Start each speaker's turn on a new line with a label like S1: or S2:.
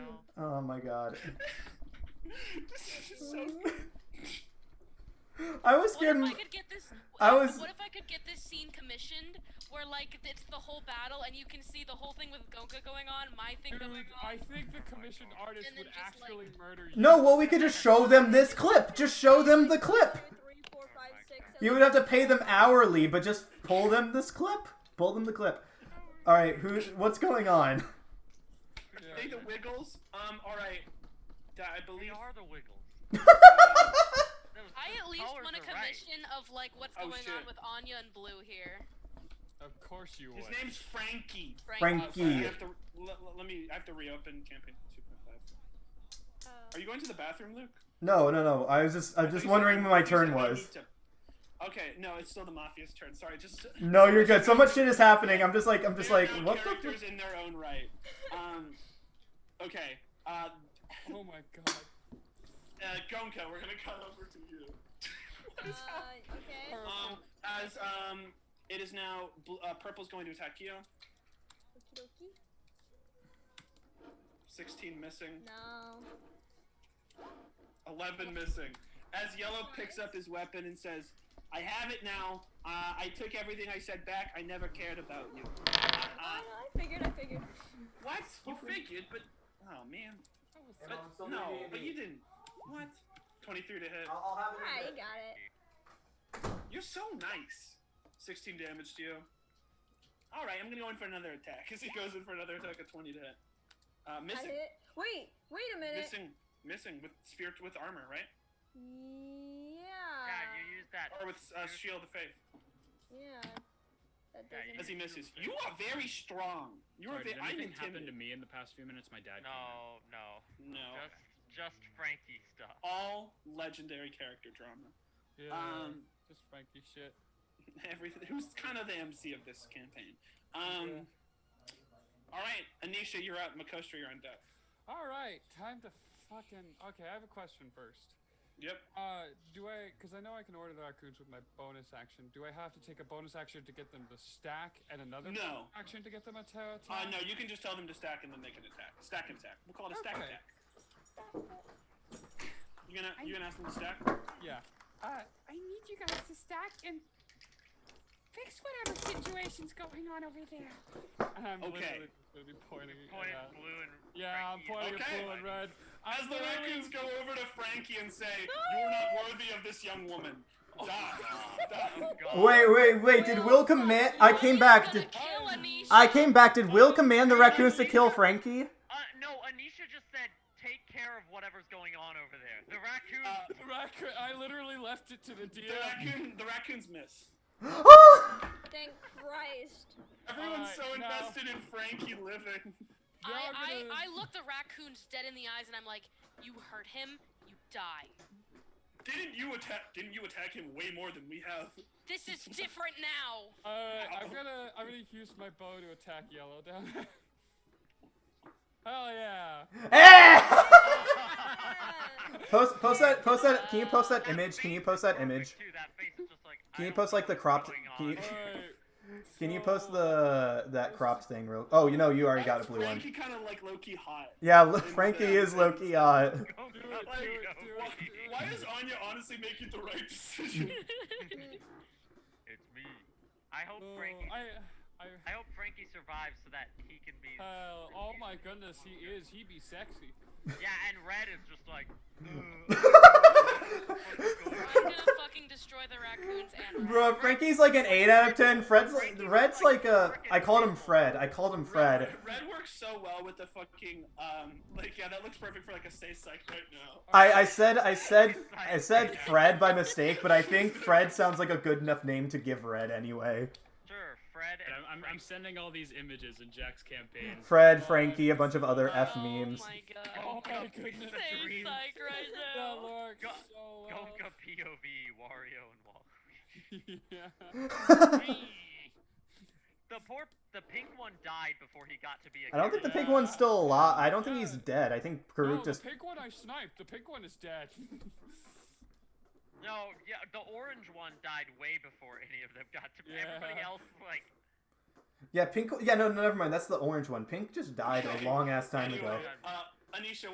S1: Oh my god.
S2: this is so good.
S1: I was
S3: What if
S1: scared.
S3: I could get this?
S1: I was-
S3: What if I could get this scene commissioned, where like it's the whole battle and you can see the whole thing with Gonka going on, my thing
S2: Dude,
S3: going on.
S2: I think the commissioned artist
S3: And then
S2: would
S3: just, like-
S2: actually murder you.
S1: No, well, we could just show them this clip. Just show them the clip.
S4: Three, four, five, six, seven,
S1: You would have to pay them hourly, but just pull them this clip. Pull them the clip. All right, who? What's going on?
S2: Yeah,
S5: They the Wiggles. Um. All right. That I
S6: They
S5: believe.
S6: are the Wiggles. That was-
S3: I at least
S6: Colors
S3: want a
S6: are right.
S3: commission of like what's
S5: Oh,
S3: going on
S5: shit.
S3: with Anya and Blue here.
S2: Of course you would.
S5: His name's Frankie.
S1: Frank-
S3: Frank.
S5: Oh, sorry, I
S1: Frankie.
S5: have to le- le- let me. I have to reopen campaign 2.5. Are you going to the bathroom, Luke?
S1: No, no, no. I was just, I'm
S5: You
S1: just
S5: said-
S1: wondering when my
S5: you said
S1: turn
S5: I
S1: was.
S5: need to- Okay, no, it's still the mafia's turn. Sorry, just
S1: No, you're good. So much shit is happening. I'm just like, I'm just
S5: They're
S1: like,
S5: now
S1: what the?
S5: characters in their own right. Um, okay. Uh,
S2: Oh my god.
S5: uh, Gonka, we're gonna cut over to you.
S4: Uh, okay.
S5: um, as um, it is now bl- uh, purple's going to attack you.
S4: Okie dokie.
S5: Sixteen missing.
S4: No.
S5: Eleven missing. As yellow picks up his weapon and says, "I have it now. Uh, I took everything I said back. I never cared about you." Uh,
S4: Oh,
S5: uh,
S4: no, I figured, I figured.
S5: what? You figured, but oh man.
S2: That was
S5: But, no, but you didn't. What? 23 to hit.
S4: Ah, you got it.
S5: You're so nice. 16 damage to you. All right, I'm gonna go in for another attack. As he goes in for another attack at 20 to hit. Uh,
S4: I
S5: missing,
S4: hit. Wait, wait a minute.
S5: missing, missing with spirit with armor, right?
S6: Yeah,
S4: Yeah.
S6: you use that.
S5: Or with uh, shield of faith.
S4: Yeah. That
S6: Yeah,
S4: doesn't.
S5: As he misses, you are very strong. You are.
S7: Sorry,
S5: Ve-
S7: did
S5: I'm
S7: anything happen to
S5: intimidated.
S7: me in the past few minutes? My dad.
S6: No, no.
S5: No.
S6: Just, just Frankie stuff.
S2: Oh,
S5: All legendary character drama.
S2: Yeah,
S5: Um,
S2: just Frankie shit.
S5: everything. Who's kind of the MC of this campaign? Um. All right, Anisha, you're up. Makostra, you're on deck.
S2: All right, time to fucking. Okay, I have a question first.
S5: Yep.
S2: Uh, do I? Because I know I can order the raccoons with my bonus action. Do I have to take a bonus action to get them to stack and another
S5: No.
S2: action to get them a
S5: Uh,
S2: ta- attack?
S5: no, you can just tell them to stack and then they can attack. Stack and attack. We'll call it a stack
S2: Okay.
S5: attack. You gonna you gonna ask them to stack?
S2: Yeah.
S8: Uh, I need you guys to stack and fix whatever situation's going on over there.
S2: And I'm
S5: Okay.
S2: literally gonna be pointing.
S6: Point
S2: at-
S6: blue and
S2: Yeah, I'm pointing
S5: Okay.
S2: at blue and red.
S5: As the
S2: literally-
S5: raccoons go over to Frankie and say, "You're not worthy of this young woman." Die. Die.
S1: Wait, wait, wait. Did Will command? I came back. Did
S3: to kill Anisha.
S1: I came back? Did Will command the raccoons to kill Frankie?
S6: Uh, no, Anisha just said, take care of whatever's going on over there. The raccoon.
S5: Uh,
S2: The Raccoon, I literally left it to the
S5: the
S2: DM.
S5: raccoon the raccoons miss.
S4: Thank Christ.
S5: Everyone's
S2: Alright,
S5: so
S2: now-
S5: invested in Frankie living.
S3: I,
S2: Y'all are gonna-
S3: I, I look the raccoons dead in the eyes and I'm like, you hurt him, you die.
S5: Didn't you attack? Didn't you attack him way more than we have?
S3: This is different now.
S2: Alright, I'm gonna I'm gonna use my bow to attack yellow down. there. Hell yeah!
S1: Eh!
S4: Ah,
S1: post, post that, post that. Can you post that image? Can you post that
S6: Perfect,
S1: image?
S6: Too. That face is just like,
S1: Can
S6: I
S1: you
S6: don't
S1: post,
S6: know
S1: like, the
S6: what's
S1: cropped-
S6: going
S1: can
S6: on.
S1: you-
S2: Alright.
S1: Can you post
S2: so-
S1: the that cropped thing real? Oh, you know, you already got a blue one.
S5: Frankie kind of like low key hot.
S1: Yeah, look, Frankie is Loki. Uh,
S6: Go
S2: Do it,
S6: nuts,
S2: do
S6: Yogi.
S2: it, do
S5: Why,
S2: it, do it.
S5: why is Anya honestly making the right decision?
S6: It's me. I hope
S2: Oh,
S6: Frankie. I,
S2: I, I,
S6: hope Frankie survives so that he can be.
S2: hell, oh my goodness, he is. He be sexy.
S6: Yeah, and Red is just like.
S3: I'm gonna fucking destroy the raccoons and
S1: Bro, Frankie's like an eight out of ten. Fred's like, Red's like a. I called him Fred. I called him Fred.
S5: Red works so well with the fucking um like yeah that looks perfect for like a say psych right now.
S1: I, I said I said I said Fred by mistake, but I think Fred sounds like a good enough name to give Red anyway.
S6: Sure, Fred
S7: And
S6: and
S7: I'm, I'm, I'm sending all these images in Jack's campaign.
S1: Fred, Frankie, a bunch of other F
S3: Oh
S1: memes.
S3: my
S2: Oh
S3: god.
S2: my goodness.
S3: Say psych right
S2: That
S3: now.
S2: works
S6: Go-
S2: so well.
S6: Gonka POV Wario and Walker.
S2: yeah.
S6: the poor, the pink one died before he got to be a.
S1: I don't think the
S6: character.
S1: pink one's still alive. I don't think he's dead. I think
S2: No,
S1: Karuk
S2: Oh, the
S1: just.
S2: pink one I sniped. The pink one is dead.
S6: No, yeah, the orange one died way before any of them got to. Everybody
S2: Yeah.
S6: else like.
S1: Yeah, pink. Yeah, no, no, never mind. That's the orange one. Pink just died a long ass time ago.
S5: Uh, Anisha,